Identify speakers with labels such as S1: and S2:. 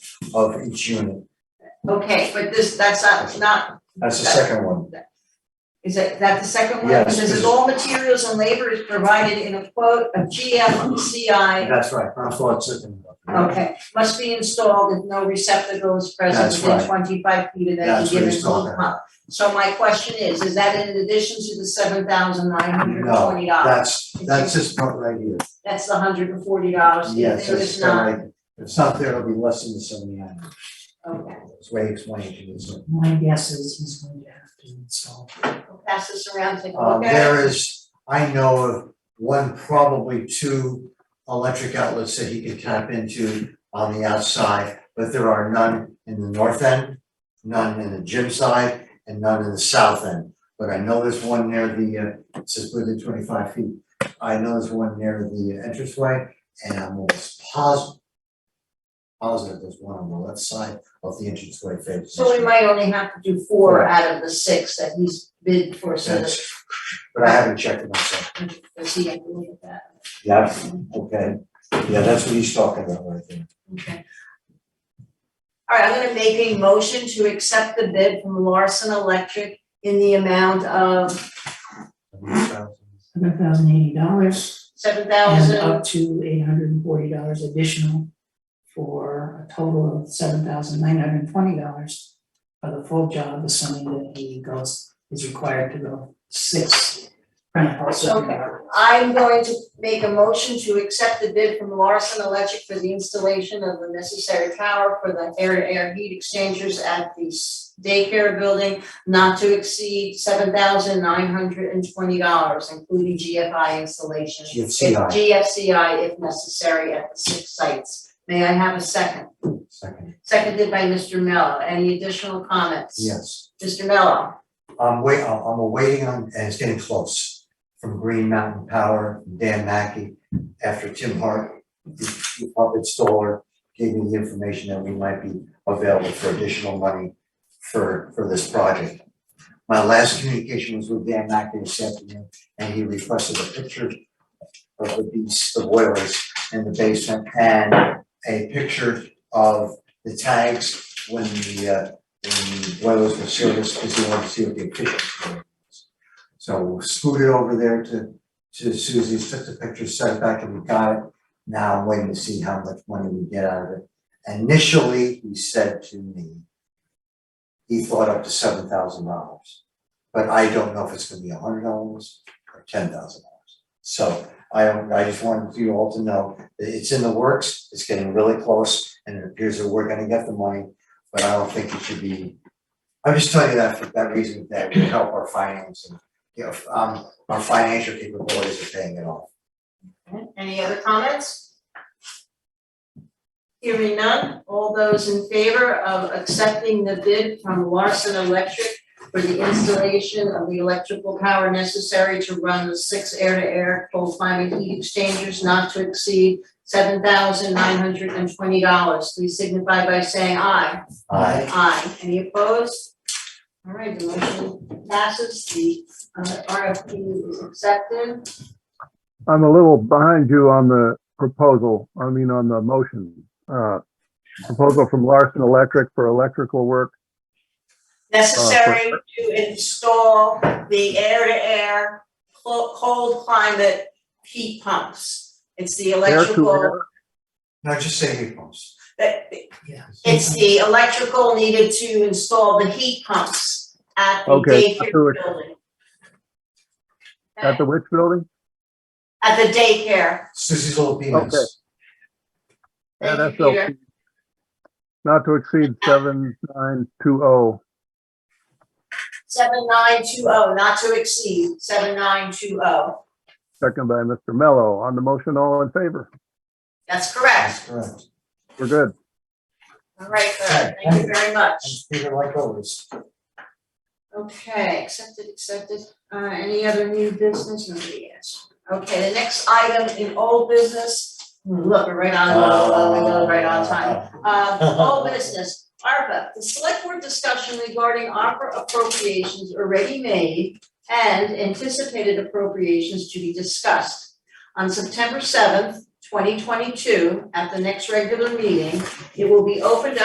S1: of each unit.
S2: Okay, but this, that's not, it's not,
S1: That's the second one.
S2: is that, that the second one?
S1: Yes,
S2: It says
S1: this is-
S2: all materials and labor is provided in a quote of GMCI,
S1: That's right. I thought second. one.
S2: okay, must be installed if no receptacle is present
S1: That's
S2: within
S1: right.
S2: twenty-five feet of any
S1: That's what
S2: given
S1: he's talking
S2: pole pump. So my question is, is that in addition to the seven thousand nine hundred and twenty dollars?
S1: That's, that's this part right here.
S2: That's the hundred and forty dollars,
S1: Yes,
S2: if there
S1: it's
S2: is not,
S1: not, if it's not there, it'll be less than the seventy-nine.
S2: okay,
S1: That's way explained to me. so.
S3: My guess is he's going to have to install.
S2: I'll pass this around, take a
S1: Um,
S2: look at it.
S1: there is, I know of one, probably two electric outlets that he could tap into on the outside, but there are none in the north end, none in the gym side, and none in the south end. But I know there's one near the, uh, it says within twenty-five feet. I know there's one near the entranceway, and I'm almost positive positive there's one on the left side of the entranceway face.
S2: So we might only have to do four out of the six that he's bid for, so that
S1: Yes, But I haven't checked it myself.
S2: Does he have to look at that?
S1: Yeah, okay, yeah, that's what he's talking about right there.
S2: Okay. All right, I'm gonna make a motion to accept the bid from Larson Electric in the amount of
S3: Hundred thousand eighty dollars
S2: seven
S3: and
S2: thousand,
S3: up to eight hundred and forty dollars additional for a total of seven thousand nine hundred and twenty dollars for the full job, assuming that he goes, is required to go six rentals.
S2: Okay. I'm going to make a motion to accept the bid from Larson Electric for the installation of the necessary power for the air air heat exchangers at the s- daycare building not to exceed seven thousand nine hundred and twenty dollars, including GFI installation.
S1: GFCI.
S2: If GFCI if necessary at the six sites. May I have a second?
S1: Second,
S2: Seconded by Mr. Mello. Any additional comments?
S1: yes,
S2: Mr. Mello,
S1: I'm wait, I'm I'm awaiting on, and it's getting close, from Green Mountain Power, Dan Mackey, after Tim Hart, the the pump installer, gave me the information that we might be available for additional money for, for this project. My last communication was with Dan Mackey this afternoon, and he requested a picture of the beast, the boilers in the basement, and a picture of the tags when the, uh, when the boilers were serviced, because he wanted to see what the efficiency was. So we'll scoot it over there to, to Suzie's, took the picture, sent it back, and we got it. Now I'm waiting to see how much money we get out of it. Initially, he said to me, he thought up to seven thousand dollars, but I don't know if it's gonna be a hundred dollars or ten thousand dollars. So I, I just wanted you all to know that it's in the works, it's getting really close, and it appears that we're gonna get the money, but I don't think it should be. I'm just telling you that for that reason, that will help our financing, you know, um, our financial capabilities of paying it off.
S2: any other comments? Hearing none, all those in favor of accepting the bid from Larson Electric for the installation of the electrical power necessary to run the six air-to-air cold climate heat exchangers not to exceed seven thousand nine hundred and twenty dollars, please signify by saying aye.
S1: I,
S2: Aye. Any opposed? All right, the motion passes, the uh, RFP is accepted.
S4: I'm a little behind you on the proposal, I mean, on the motion. Uh, Proposal from Larson Electric for electrical work. Uh,
S2: Necessary to install the air-to-air clo- cold climate heat pumps. It's the
S4: Air to
S2: electrical,
S4: air.
S1: no, just say heat pumps.
S2: that-
S3: Yeah.
S2: it's the electrical needed to install the heat pumps at the
S4: Okay,
S2: daycare
S4: to it.
S2: building.
S4: At the which building?
S2: At the daycare.
S1: Susie's little penis.
S4: Okay.
S2: Thank you,
S4: NSLP.
S2: Peter.
S4: Not to exceed 7920.
S2: Seven nine two oh, not to exceed, seven nine two oh.
S4: Second by Mr. Mello. On the motion, all in favor?
S2: That's correct.
S1: That's correct.
S4: We're good.
S2: All right, good. Thank you very
S1: And
S2: much.
S1: Peter, like always,
S2: Okay, accepted, accepted. Uh, any other new business? Nobody yes. Okay, the next item in old business, look, we're right on, uh, we go right on time. Uh, old business, ARPA, the select board discussion regarding ARPA appropriations already made and anticipated appropriations to be discussed. On September seventh, twenty twenty-two, at the next regular meeting, it will be opened